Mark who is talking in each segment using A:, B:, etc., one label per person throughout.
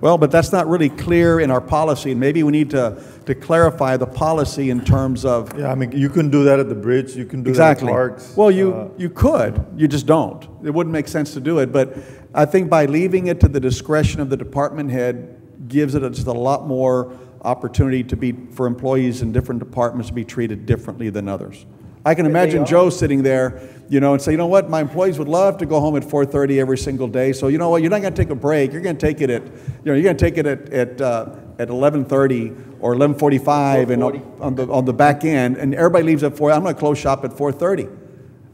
A: Well, but that's not really clear in our policy, and maybe we need to, to clarify the policy in terms of,
B: Yeah, I mean, you can do that at the bridge, you can do that at
A: exactly.
B: parks.
A: Well,
B: uh,
A: you, you could, you just don't. It wouldn't make sense to do it, but I think by leaving it to the discretion of the department head gives it just a lot more opportunity to be, for employees in different departments to be treated differently than others. I can imagine Joe sitting there, you know, and say, you know what, my employees would love to go home at 4:30 every single day, so you know what, you're not gonna take a break, you're gonna take it at, you know, you're gonna take it at, at, uh, at 11:30 or 11:45 and on- on the, on the back end, and everybody leaves at 4, I'm gonna close shop at 4:30.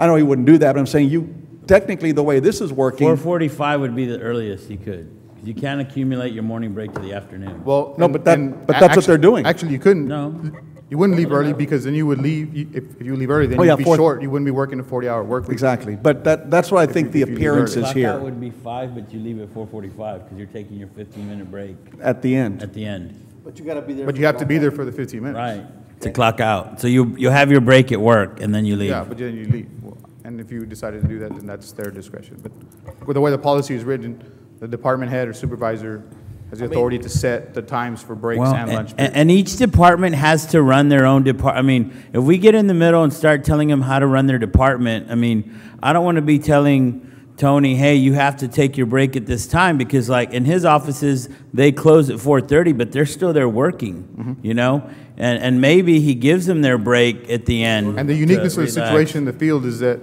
A: I know he wouldn't do that, but I'm saying you, technically, the way this is working,
C: 4:45 would be the earliest you could. 'cause You can't accumulate your morning break to the afternoon.
D: Well,
A: No,
D: and-
A: but that-
D: and
A: but
D: a-
A: that's what they're
D: actually-
A: doing.
D: Actually, you couldn't.
C: No.
D: You wouldn't leave early because then you would leave, you- if, if you leave early, then
A: Oh, yeah,
D: you'd be
A: fourth-
D: short. You wouldn't be working a 40-hour work week.
A: exactly, but that, that's what I think the
D: if you leave
A: appearance
D: early.
A: is
C: Clock out
A: here,
C: would be 5, but you leave at 4:45 because you're taking your 15-minute break
A: at the end.
C: at the end.
E: But you gotta be there.
D: But you have to be there for the 15 minutes.
C: Right. To clock out. So you, you have your break at work and then you leave.
D: Yeah, but then you leave. Well, And if you decided to do that, then that's their discretion. But with the way the policy is written, the department head or supervisor has the authority to set the times for breaks
C: Well,
D: and lunch.
C: And, and each department has to run their own depart, I mean, if we get in the middle and start telling them how to run their department, I mean, I don't want to be telling Tony, hey, you have to take your break at this time, because like, in his offices, they close at four thirty, but they're still there working,
D: Mm-hmm.
C: you know? And, and maybe he gives them their break at the end.
D: And the
C: to
D: uniqueness of the
C: relax.
D: situation in the field is that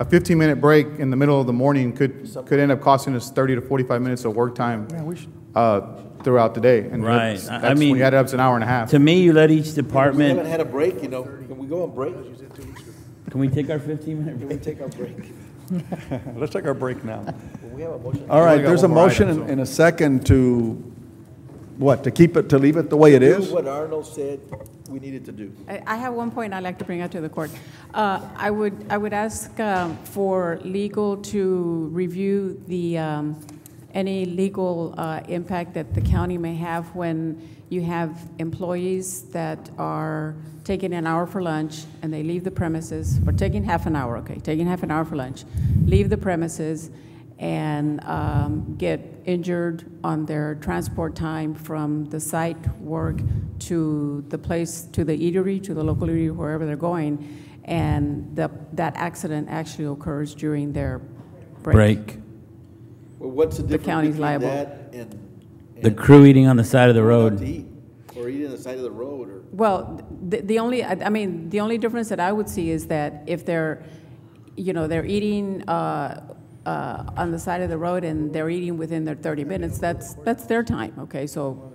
D: a 15-minute break in the middle of the morning could, could end up costing us 30 to 45 minutes of work time uh, throughout the day. And
C: Right.
D: that's-
C: I- I
D: That's, when
C: mean-
D: you add it up, it's an hour and a half.
C: To me, you let each
E: We haven't
C: department,
E: had a break, you know, can we go on break? Can
C: can we take our fifteen minute
E: we
C: break?
E: take our break?
A: Let's take our break now.
E: We have a motion.
A: All right,
D: got
A: there's a
D: one more
A: motion
D: item,
A: and-
D: so-
A: and a second to, what, to keep it, to leave it the way it
E: Do
A: is?
E: what Arnold said we needed to do.
F: I I have one point I'd like to bring up to the court. Uh, I would, I would ask um, for legal to review the, um, any legal uh, impact that the county may have when you have employees that are taking an hour for lunch and they leave the premises, or taking half an hour, okay, taking half an hour for lunch, leave the premises and um, get injured on their transport time from the site work to the place, to the eatery, to the local eatery, wherever they're going, and the, that accident actually occurs during their break.
C: Break.
E: Well, what's the difference
F: county's
E: between
F: liable.
E: that and?
C: The
E: and
C: crew eating on the side of the
E: going out
C: road.
E: to eat, Or eating on the side of the road, or?
F: Well, the, the only, I I mean, the only difference that I would see is that if they're, you know, they're eating uh, uh, on the side of the road and they're eating within their 30 minutes, that's, that's their time, okay? So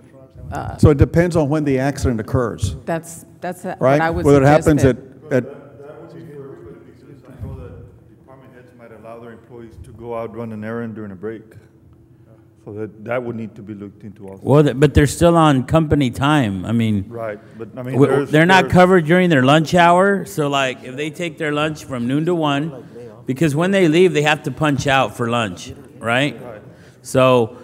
A: So it depends on when the accident occurs,
F: that's, that's what
A: right?
F: I would
A: Whether it
F: suggest
A: happens
F: that-
A: at, at,
B: That would be for everybody, because I know that department heads might allow their employees to go out, run an errand during a break. So that, that would need to be looked into also.
C: Well, th- but they're still on company time. I mean,
B: Right, but I mean,
C: w-
B: there's.
C: they're not
B: there's-
C: covered during their lunch hour. So, like, if they take their lunch from noon to one, because when they leave, they have to punch out for lunch, right? So,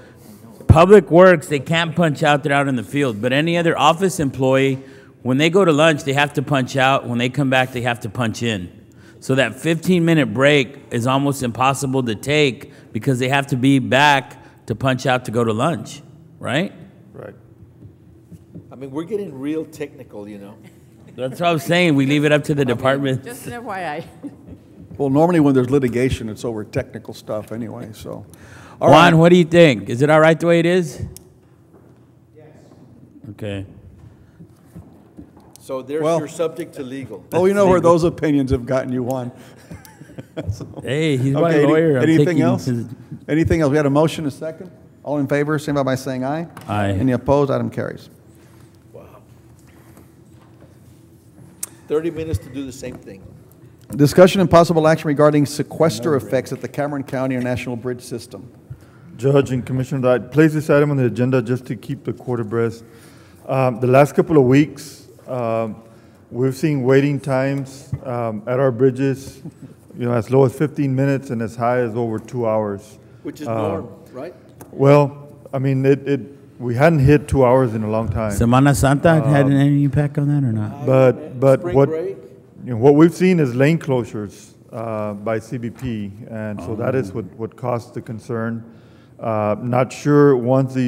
C: Public Works, they can't punch out. They're out in the field. But any other office employee, when they go to lunch, they have to punch out. When they come back, they have to punch in. So that 15-minute break is almost impossible to take because they have to be back to punch out to go to lunch, right?
B: Right.
E: I mean, we're getting real technical, you know?
C: That's what I'm saying. We leave it up to the department.
F: Just an FYI.
A: well, normally when there's litigation, it's over technical stuff anyway, so. All right.
C: Juan, what do you think? Is it all right the way it is? Yes. Okay.
E: So there's
A: Well-
E: your subject to legal.
A: Oh, you know where those opinions have gotten you, Juan.
C: Hey, he's my
A: Okay. any-
C: lawyer. I'm
A: Anything
C: taking
A: else?
C: his-
A: Anything else? We had a motion, a second? All in favor, signify by saying aye.
C: Aye.
A: Any opposed? Item carries.
E: Thirty minutes to do the same thing.
A: Discussion and possible action regarding sequester effects at the Cameron County International Bridge System.
B: Judge and Commissioner, I place this item on the agenda just to keep the court abreast. Um, The last couple of weeks, um, we've seen waiting times um, at our bridges, you know, as low as 15 minutes and as high as over two hours.
E: Which
C: uh,
E: is norm, right?
B: Well, I mean, it, it, we hadn't hit two hours in a long time.
C: Semana Santa
A: Uh,
C: had any impact on that or not?
B: But, but
E: Spring
B: what,
E: break?
B: you know, what we've seen is lane closures uh, by CBP, and so that is what, what caused the concern. Uh, Not sure, once the